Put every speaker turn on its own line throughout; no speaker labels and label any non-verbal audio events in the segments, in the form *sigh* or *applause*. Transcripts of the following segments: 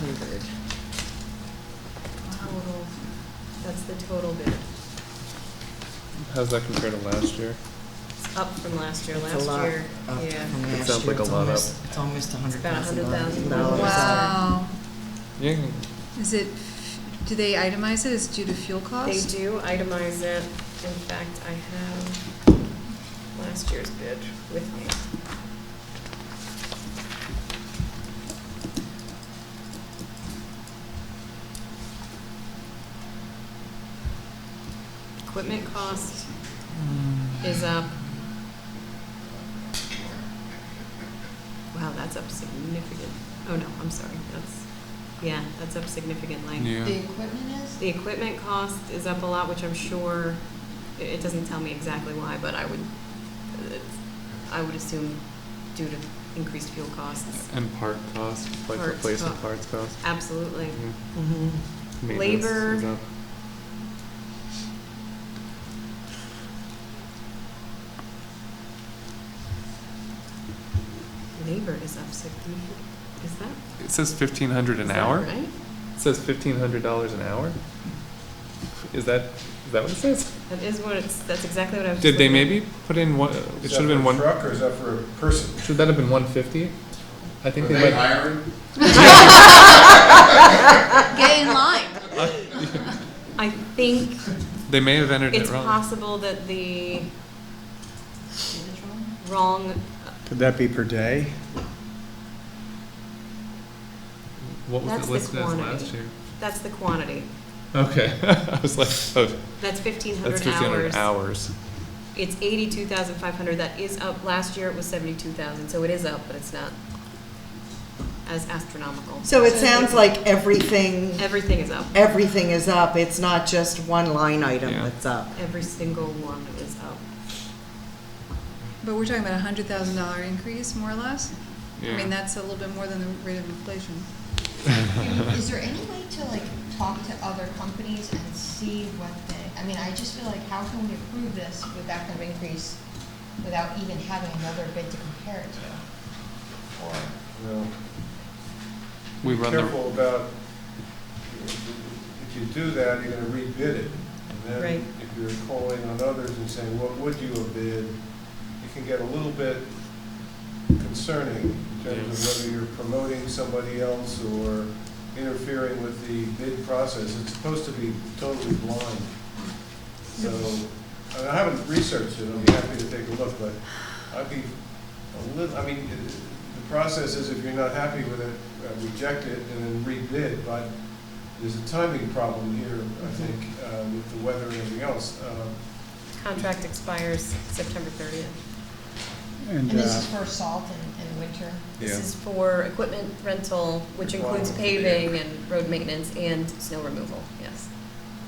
hundred. Total, that's the total bid.
How's that compare to last year?
It's up from last year,
It's a
last
lot
year,
up
yeah.
from
It
last
sounds
year.
like a
It's
lot up.
almost- It's almost a hundred
It's about
thousand dollars.
$100,000.
Wow.
You can,
Is it, do they itemize it as due to fuel
They
cost?
do itemize it. In fact, I have last year's bid with me. Equipment cost is up. Wow, that's up significant. Oh, no, I'm sorry. That's, yeah, that's up significantly.
yeah.
equipment is?
The equipment cost is up a lot, which I'm sure, it- it doesn't tell me exactly why, but I would, it's- I would assume due to increased fuel costs.
And part cost, like
Parts
replacement
cost.
parts cost.
Absolutely.
Yeah.
Mhm.
Maintenance
Labor.
is up.
Labor is up significantly. Is that?
It says fifteen hundred
is
an
that
hour?
Right?
It says fifteen hundred dollars an hour? Is that, is that what it says?
That is what it's, that's exactly what I was.
*laughs* Did they
looking at.
maybe put in one, it
Is
should have
that
been
for a
one,
Truck or is that for a person?
should that have been one fifty? I think
Are
they
they
might,
hiring?
Get in line.
I think
*laughs* they may have entered
it's
it wrong.
possible that the wrong,
Could that be per day?
What was
That's
it
the
listed as
quantity.
last year?
that's the quantity.
Okay, *laughs* I was like, oh,
That's fifteen
that's
hundred
fifteen hundred hours.
It's eighty-two thousand five hundred, that is up, last year it was seventy-two thousand, so it is up, but it's not as astronomical.
So it sounds like everything,
Everything is up,
everything is up. It's not just one line item
Yeah.
that's up.
every single one is up.
But we're talking about a hundred thousand dollar increase, more or less? I
Yeah.
mean, that's a little bit more than the rate of inflation.
*laughs* Is there any way to like talk to other companies and see what they, I mean, I just feel like how can we approve this with that kind of increase without even having another bid to compare it to? Or,
No.
We
Be
run the-
Careful about, if you do that, you're gonna rebid it. And
Right.
then if you're calling on others and saying, what would you have bid? It can get a little bit concerning in terms of whether you're promoting somebody else or interfering with the bid process. It's supposed to be totally blind. So, I mean, I haven't researched it, I'll be happy to take a look, but I'd be a little, I mean, it- the process is if you're not happy with it, uh, reject it and then rebid, but there's a timing problem here,
Mm-hmm.
I think, uh, with the weather and everything else. Uh,
Contract expires September thirtieth.
and
And
this is
uh,
for salt in, in winter?
This is for equipment rental, which includes paving and road maintenance and snow removal, yes.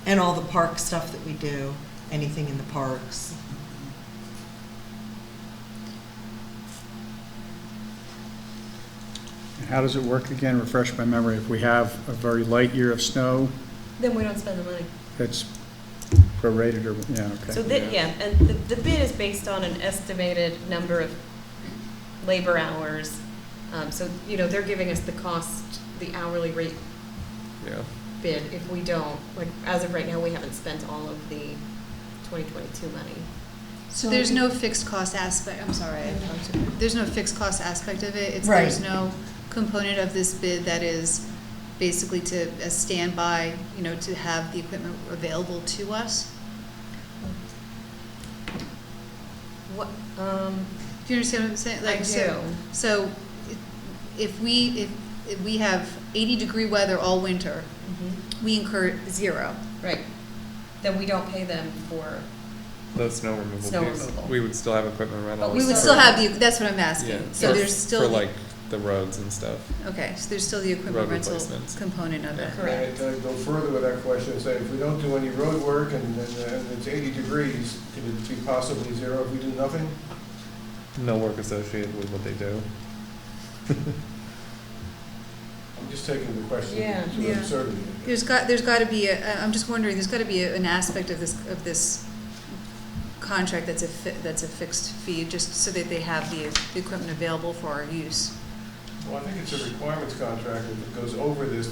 And all the park stuff that we do, anything in the parks.
how does it work again? Refresh my memory. If we have a very light year of snow,
Then we don't spend the money.
it's prorated or, yeah, okay.
So that, yeah, and the, the bid is based on an estimated number of labor hours. Um, so, you know, they're giving us the cost, the hourly rate
Yeah.
bid if we don't, like, as of right now, we haven't spent all of the 2022 money.
So there's no fixed cost aspect, I'm sorry, I talked to- there's no fixed cost aspect of it. It's, there's
Right.
no component of this bid that is basically to a standby, you know, to have the equipment available to us.
What, um,
Do you understand what I'm saying? Like,
I
so-
do.
So i- if we, if, if we have eighty degree weather all winter,
Mm-hmm.
we incur zero.
right, then we don't pay them for,
The snow removal.
Snow
piece.
removal.
We would still have equipment rental.
But
We would
So-
still have the, that's what I'm
Oh, Yeah.
asking. So
for-
there's still.
For
the-
like the roads and stuff.
Okay, so there's still the equipment
Road
rental
replacements.
component of it.
Correct.
And I'd go further with that question and say, if we don't do any road work and and- and it's 80 degrees, could it be possibly zero if we do nothing?
No work associated with what they do.
I'm just taking the question
Yeah.
to
Yeah.
absurdity.
There's got, there's gotta be, a- I'm just wondering, there's gotta be a- an aspect of this, of this contract that's a, fi- that's a fixed fee, just so that they have the, the equipment available for our use.
Well, I think it's a requirements contract, if it goes over this,